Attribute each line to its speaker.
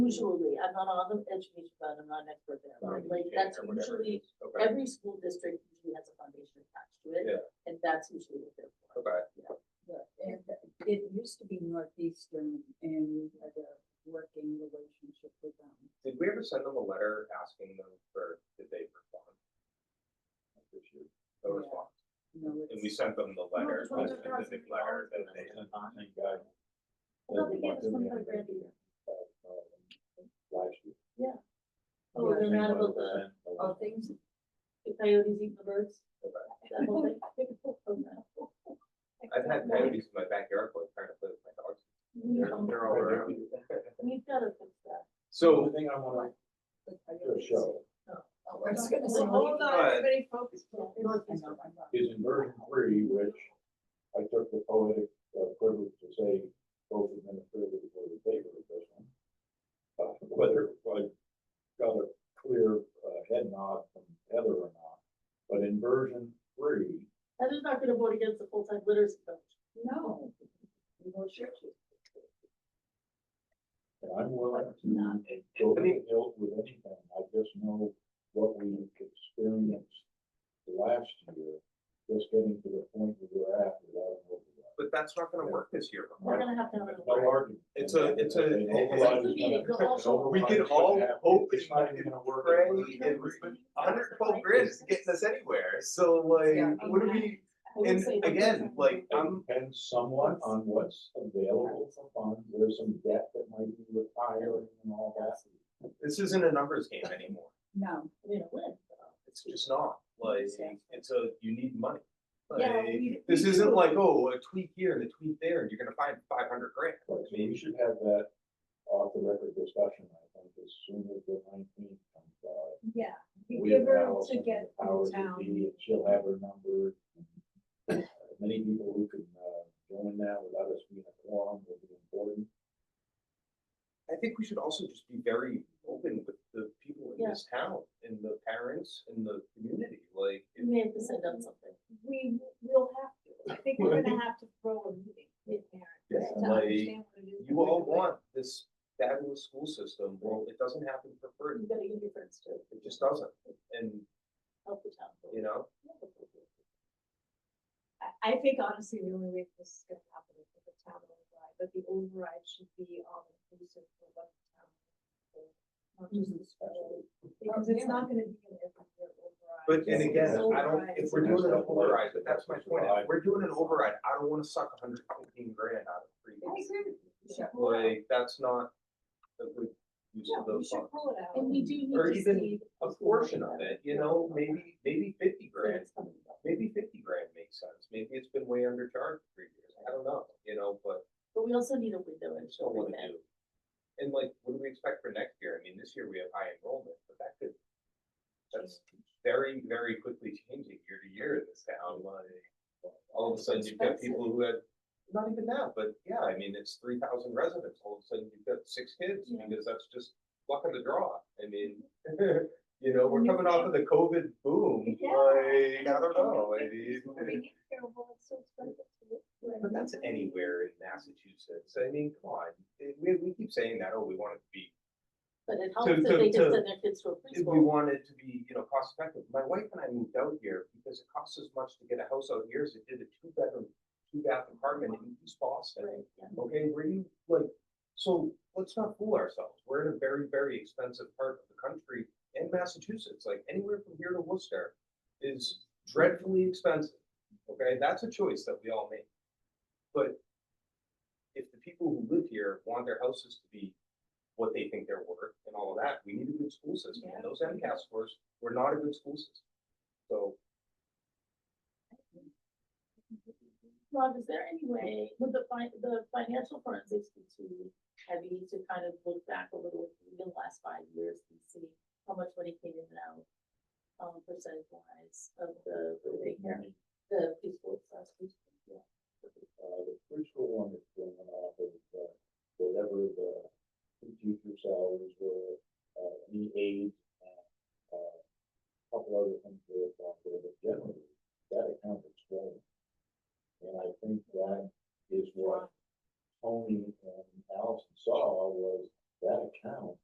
Speaker 1: usually, I'm not on the education fund, I'm not an expert there, but
Speaker 2: Right.
Speaker 1: Um, like, that's
Speaker 2: Or whatever
Speaker 1: usually,
Speaker 2: it is. Okay.
Speaker 1: every school district usually has a foundation attached to it.
Speaker 2: Yeah.
Speaker 1: And that's usually what they're for.
Speaker 2: Okay.
Speaker 3: But it- It used to be Northeastern and we had a working relationship with them.
Speaker 2: Did we ever send them a letter asking them for, did they respond? This year? No
Speaker 3: Yeah.
Speaker 2: response.
Speaker 3: You know,
Speaker 2: And we
Speaker 3: it's-
Speaker 2: sent them the letter,
Speaker 1: it's one
Speaker 2: the
Speaker 1: of the
Speaker 2: specific
Speaker 1: thousand
Speaker 2: letter that
Speaker 1: dollars.
Speaker 2: they.
Speaker 4: Thank God.
Speaker 1: Well, they gave us one hundred grand a year.
Speaker 4: Last year.
Speaker 1: Oh, they're not about the,
Speaker 3: Oh, things,
Speaker 1: the coyotes eat the birds.
Speaker 2: Okay.
Speaker 1: That whole thing. Oh, no.
Speaker 2: I've had coyotes in my backyard, like trying to play with my dogs. They're, they're all around.
Speaker 1: We've gotta fix that.
Speaker 4: So the
Speaker 2: So,
Speaker 4: thing I wanna
Speaker 3: but I
Speaker 4: do a
Speaker 3: guess-
Speaker 4: show
Speaker 3: I was gonna say.
Speaker 1: Well, hold
Speaker 2: on,
Speaker 3: everybody focus.
Speaker 4: is in version three, which I took the poetic uh, privilege to say both administrative were in favor of this one. Uh, Whether I got a clear uh, head nod from Heather or not, but in version three,
Speaker 1: Heather's not gonna vote against the full-time literacy coach.
Speaker 3: No. We will shoot you.
Speaker 4: And I'm willing to go to the hill with anything, I just know what we experienced last year, just getting to the point where we're at without an override.
Speaker 2: but that's not gonna work this year.
Speaker 1: We're gonna have to have
Speaker 4: No
Speaker 1: another.
Speaker 4: argument.
Speaker 2: It's a- it's a-
Speaker 4: An override is
Speaker 1: Meeting, we'll all show
Speaker 4: gonna-
Speaker 1: up.
Speaker 2: We can all hope
Speaker 4: It's not even gonna work.
Speaker 2: Pray
Speaker 4: It's not
Speaker 2: and
Speaker 4: gonna work.
Speaker 2: Hundred twelve grand is getting us anywhere, so like,
Speaker 3: Yeah.
Speaker 2: what do we, and again, like, I'm,
Speaker 4: It depends somewhat on what's available for funds, there's some debt that might be retired and all that.
Speaker 2: this isn't a numbers game anymore.
Speaker 3: No,
Speaker 1: We're gonna win.
Speaker 2: It's just not, like, it's a, you need money.
Speaker 1: Yeah,
Speaker 2: Like,
Speaker 1: we-
Speaker 2: This
Speaker 1: we
Speaker 2: isn't
Speaker 1: do.
Speaker 2: like, oh, a tweak here and a tweak there, and you're gonna find five hundred grand.
Speaker 4: But we should have that off the record discussion, I think, as soon as the nineteenth comes out.
Speaker 3: yeah.
Speaker 4: We
Speaker 3: Give her
Speaker 4: allow
Speaker 3: to get
Speaker 4: the powers
Speaker 3: through
Speaker 4: that be,
Speaker 3: town.
Speaker 4: and She'll have her number. Uh, Many people who can, uh, join that without us being a quorum will be important.
Speaker 2: I think we should also just be very open with the people in
Speaker 1: Yeah.
Speaker 2: this town, and the parents, and the community, like.
Speaker 1: We may have to send out something.
Speaker 3: We will have to, I think we're gonna have to throw a meeting with
Speaker 2: Yeah,
Speaker 3: parents to
Speaker 2: like,
Speaker 3: understand what it is.
Speaker 2: You
Speaker 3: we're
Speaker 2: all
Speaker 3: doing.
Speaker 2: want this fabulous school system, well, it doesn't happen for free,
Speaker 1: You gotta give your friends to
Speaker 2: it just doesn't, and,
Speaker 1: help the town.
Speaker 2: you know,
Speaker 5: I, I think honestly, the only way this is gonna happen is with the town override, but the override should be all inclusive for what the town. is, Not just
Speaker 1: Mm-hmm.
Speaker 5: the school, because it's not gonna be an every year override.
Speaker 2: but, and
Speaker 5: It's
Speaker 2: again,
Speaker 5: an
Speaker 2: I don't,
Speaker 5: override,
Speaker 2: if
Speaker 5: it's
Speaker 2: we're
Speaker 5: an
Speaker 2: doing an
Speaker 4: Override.
Speaker 2: override, but that's my point, if
Speaker 4: Override.
Speaker 2: we're doing an override, I don't wanna suck a hundred fifteen grand out of free.
Speaker 5: I agree with you.
Speaker 3: Yeah.
Speaker 2: Like, that's not a good use
Speaker 5: Yeah,
Speaker 2: of
Speaker 5: we
Speaker 2: those funds.
Speaker 5: should pull it out.
Speaker 1: And we do need
Speaker 2: Or
Speaker 1: to
Speaker 2: even
Speaker 1: see.
Speaker 2: A portion of it, you know, maybe, maybe fifty
Speaker 1: where
Speaker 2: grand,
Speaker 1: it's coming from.
Speaker 2: maybe fifty grand makes sense, maybe it's been way undercharged for years, I don't know, you know, but
Speaker 1: But we also need a window
Speaker 2: I
Speaker 1: and
Speaker 2: just don't
Speaker 1: show
Speaker 2: wanna do. And like, what do we expect for next year? I mean, this year we have high enrollment, but that could, that's very, very quickly changing year to year in this town, like, all of a sudden you've got people who had, not even that, but yeah, I mean, it's three thousand residents, all of a sudden you've got six kids,
Speaker 1: Yeah.
Speaker 2: because that's just luck of the draw, I mean, you know, we're coming off of the COVID boom, like, I don't know, I mean.
Speaker 5: Bring it here, well, it's so expensive to live here.
Speaker 2: But that's anywhere in Massachusetts. I mean, come on, It- we, we keep saying that, oh, we want it to be,
Speaker 1: But it
Speaker 2: To-
Speaker 1: helps if
Speaker 2: to-
Speaker 1: they
Speaker 2: to-
Speaker 1: can send their kids to a
Speaker 2: if we
Speaker 1: preschool.
Speaker 2: want it to be, you know, cost effective. My wife and I moved out here because it costs as much to get a house out here as it did a two bedroom, two bath apartment in East Boston.
Speaker 1: Right, yeah.
Speaker 2: Okay, where you, like, so let's not fool ourselves. We're in a very, very expensive part of the country and Massachusetts, like anywhere from here to Worcester is dreadfully expensive. Okay, that's a choice that we all make. But if the people who live here want their houses to be what they think they're worth and all of that, we need a good school system. And those MCAS scores were not a good school system. So
Speaker 1: Rob, is there any way, would the fin- the financial forensics be too heavy to kind of look back a little, even the last five years and see how much money came in and out? Um, percentage wise of the, the big- the preschool, slash preschool, yeah.
Speaker 4: Uh, the preschool one is going off of, uh, whatever the teacher salaries were, uh, any aid, uh, uh, couple other things they have out there, but generally, that account is growing. And I think that is what Tony and Allison saw was that account